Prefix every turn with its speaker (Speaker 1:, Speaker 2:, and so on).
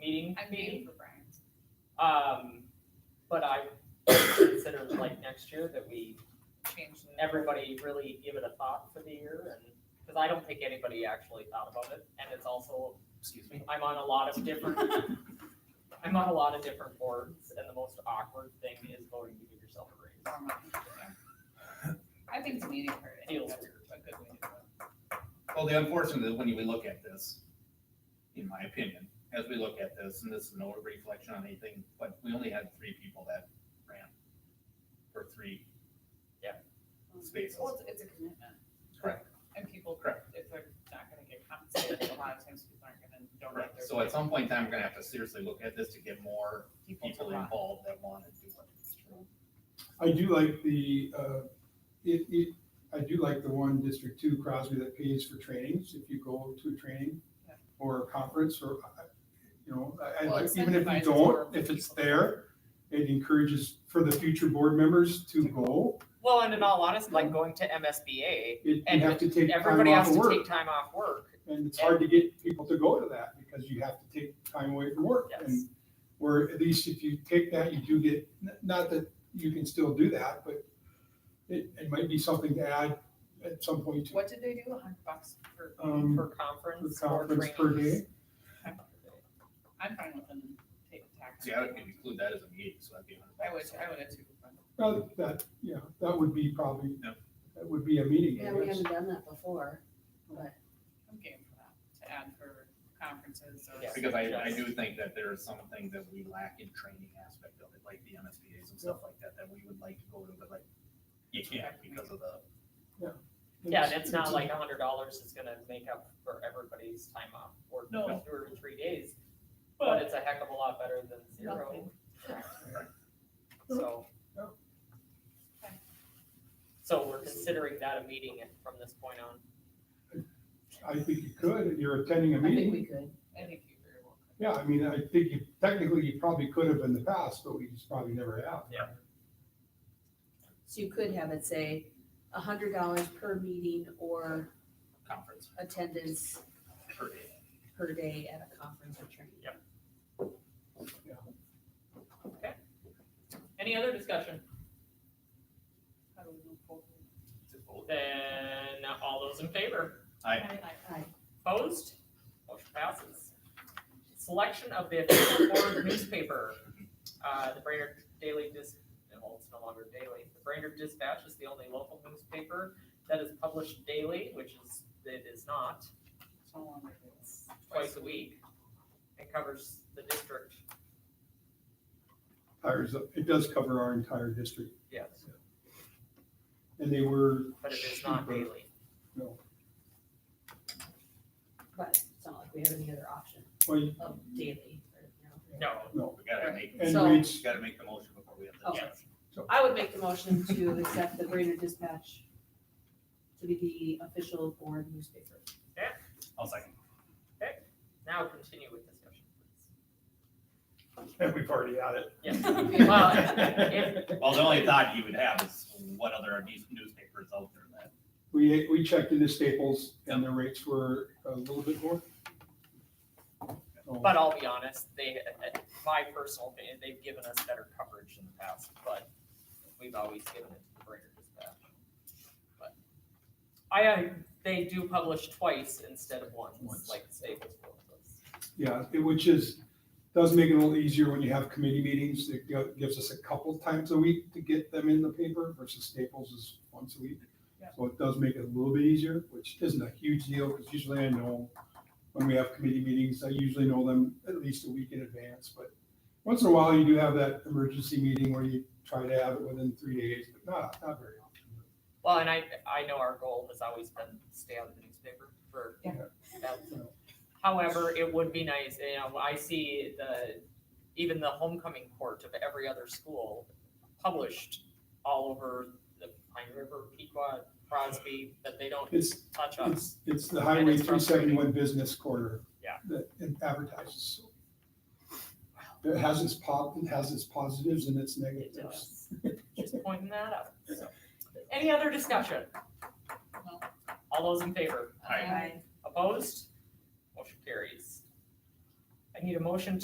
Speaker 1: meeting.
Speaker 2: I'm waiting for Brian's.
Speaker 1: Um, but I consider like next year that we,
Speaker 2: Change the-
Speaker 1: everybody really give it a thought for the year and, because I don't think anybody actually thought about it. And it's also,
Speaker 3: Excuse me.
Speaker 1: I'm on a lot of different, I'm on a lot of different boards and the most awkward thing is voting to give yourself a raise.
Speaker 2: I think it's meeting for it. I think
Speaker 1: Feels
Speaker 2: that's
Speaker 1: weird.
Speaker 2: a good way to do it.
Speaker 3: Well, the unfortunate is when you look at this, in my opinion, as we look at this, and this is no reflection on anything, but we only had three people that ran for three.
Speaker 1: Yeah.
Speaker 3: Spaces.
Speaker 2: Well, it's, it's a commitment.
Speaker 3: Correct.
Speaker 2: And people,
Speaker 3: Correct.
Speaker 2: if they're not gonna get compensated, a lot of times people aren't gonna, don't like
Speaker 3: Correct.
Speaker 2: their.
Speaker 3: So at some point in time, we're gonna have to seriously look at this to get more
Speaker 2: to
Speaker 3: people
Speaker 2: run.
Speaker 3: involved that want to do it.
Speaker 4: I do like the, uh, it, it, I do like the one District Two Crosby that pays for trainings, if you go to a training
Speaker 2: Yeah.
Speaker 4: or a conference or, uh, you know, I, I
Speaker 2: Well,
Speaker 4: like, even if you
Speaker 2: incentivizes more
Speaker 4: don't, if it's
Speaker 2: people.
Speaker 4: there, it encourages for the future board members to go.
Speaker 1: Well, and in all honesty, like going to MSBA,
Speaker 4: It, you
Speaker 1: And
Speaker 4: have to take time
Speaker 1: everybody
Speaker 4: off
Speaker 1: has
Speaker 4: of
Speaker 1: to
Speaker 4: work.
Speaker 1: take time off work.
Speaker 4: And it's hard to get people to go to that because you have to take time away from work.
Speaker 1: Yes.
Speaker 4: And Where at least if you take that, you do get, n- not that you can still do that, but it, it might be something to add at some point to,
Speaker 2: What did they do, a hundred bucks for?
Speaker 4: um,
Speaker 1: For
Speaker 4: for
Speaker 1: conference or
Speaker 4: conference per
Speaker 1: trainings.
Speaker 4: day.
Speaker 2: I'm fine with them taking tax.
Speaker 3: See, I would include that as a meeting, so that'd be. a hundred
Speaker 2: I would,
Speaker 3: bucks.
Speaker 2: I would have too.
Speaker 4: Well, that, yeah, that would be probably,
Speaker 3: Yeah.
Speaker 4: that would be a meeting. I
Speaker 5: Yeah, we
Speaker 4: guess.
Speaker 5: haven't done that before, but
Speaker 2: I'm game for that, to add for conferences or.
Speaker 1: Yeah.
Speaker 3: Because I, I do think that there are some things that we lack in training aspect of it, like the MSBA's and stuff like that, that we would like to go to, but like, you can't because of the,
Speaker 1: Yeah, and it's not like a hundred dollars is gonna make up for everybody's time off work,
Speaker 2: No.
Speaker 1: two or three days. But it's a heck of a lot better than zero,
Speaker 2: Nothing.
Speaker 1: so.
Speaker 4: No.
Speaker 2: Okay.
Speaker 1: So we're considering that a meeting from this point on.
Speaker 4: I think you could, you're attending a
Speaker 5: I think
Speaker 4: meeting.
Speaker 5: we could.
Speaker 2: I think you very well could.
Speaker 4: Yeah, I mean, I think you, technically you probably could have in the past, but we just probably never have.
Speaker 5: So you could have it say a hundred dollars per meeting or
Speaker 3: conference
Speaker 5: attendance
Speaker 3: per day.
Speaker 5: per day at a conference or training.
Speaker 1: Okay. Any other discussion?
Speaker 2: How do we move forward?
Speaker 3: Is it both?
Speaker 1: Then all those in favor?
Speaker 3: I,
Speaker 5: Aye.
Speaker 1: Opposed? Motion passes. Selection of the official board newspaper. Uh, the Brainerd Daily Dis, well, it's no longer daily. The Brainerd Dispatch is the only local newspaper that is published daily, which is, it is not,
Speaker 2: It's no longer this.
Speaker 1: twice a week. It covers the district,
Speaker 4: Tires, it does cover our entire district.
Speaker 1: yes,
Speaker 4: And they were.
Speaker 1: but it is not
Speaker 4: cheaper.
Speaker 1: daily.
Speaker 4: No.
Speaker 5: But it's not like we have any other option
Speaker 4: Well, you-
Speaker 5: of daily or, you know.
Speaker 1: No,
Speaker 4: no.
Speaker 3: we gotta make,
Speaker 4: And
Speaker 5: So-
Speaker 3: we
Speaker 4: reach,
Speaker 3: gotta make the motion before we have the
Speaker 5: Oh.
Speaker 3: discussion.
Speaker 5: I would make the motion to accept the Brainerd Dispatch to be the official board newspaper.
Speaker 3: I'll second.
Speaker 1: now continue with discussion, please.
Speaker 4: and we've already had it.
Speaker 1: Yes, Well, if-
Speaker 3: Well, the only thought you would have is what other news- newspapers out there that,
Speaker 4: We, we checked into Staples and the rates were a little bit more. So,
Speaker 1: but I'll be honest, they, my personal opinion, they've given us better coverage in the past, but we've always given it to the Brainerd Dispatch. But I, uh, they do publish twice instead of once,
Speaker 4: Once.
Speaker 1: like Staples will. does.
Speaker 4: Yeah, it- which is, does make it a little easier when you have committee meetings. It gi- gives us a couple times a week to get them in the paper versus Staples is once a week.
Speaker 2: Yeah.
Speaker 4: So it does make it a little bit easier, which isn't a huge deal because usually I know when we have committee meetings, I usually know them at least a week in advance. But once in a while, you do have that emergency meeting where you try to have it within three days, but not, not very often.
Speaker 1: Well, and I, I know our goal has always been to stay out of the newspaper for.
Speaker 4: Yeah.
Speaker 1: that-
Speaker 4: So,
Speaker 1: However, it would be nice, you know, I see the, even the homecoming court of every other school published all over the Pine River, Pequot, Crosby, that they don't
Speaker 4: It's,
Speaker 1: touch us.
Speaker 4: It's, it's the Highway
Speaker 1: it's
Speaker 4: three
Speaker 1: frustrating.
Speaker 4: seventy-one business corridor.
Speaker 1: Yeah.
Speaker 4: That it advertises. It has its po, it has its positives and its
Speaker 1: It
Speaker 4: negatives.
Speaker 1: does. Just pointing that out. So, Any other discussion?
Speaker 2: No.
Speaker 1: All those in favor?
Speaker 3: Aye.
Speaker 2: Um,
Speaker 1: Opposed? Motion carries. I need a motion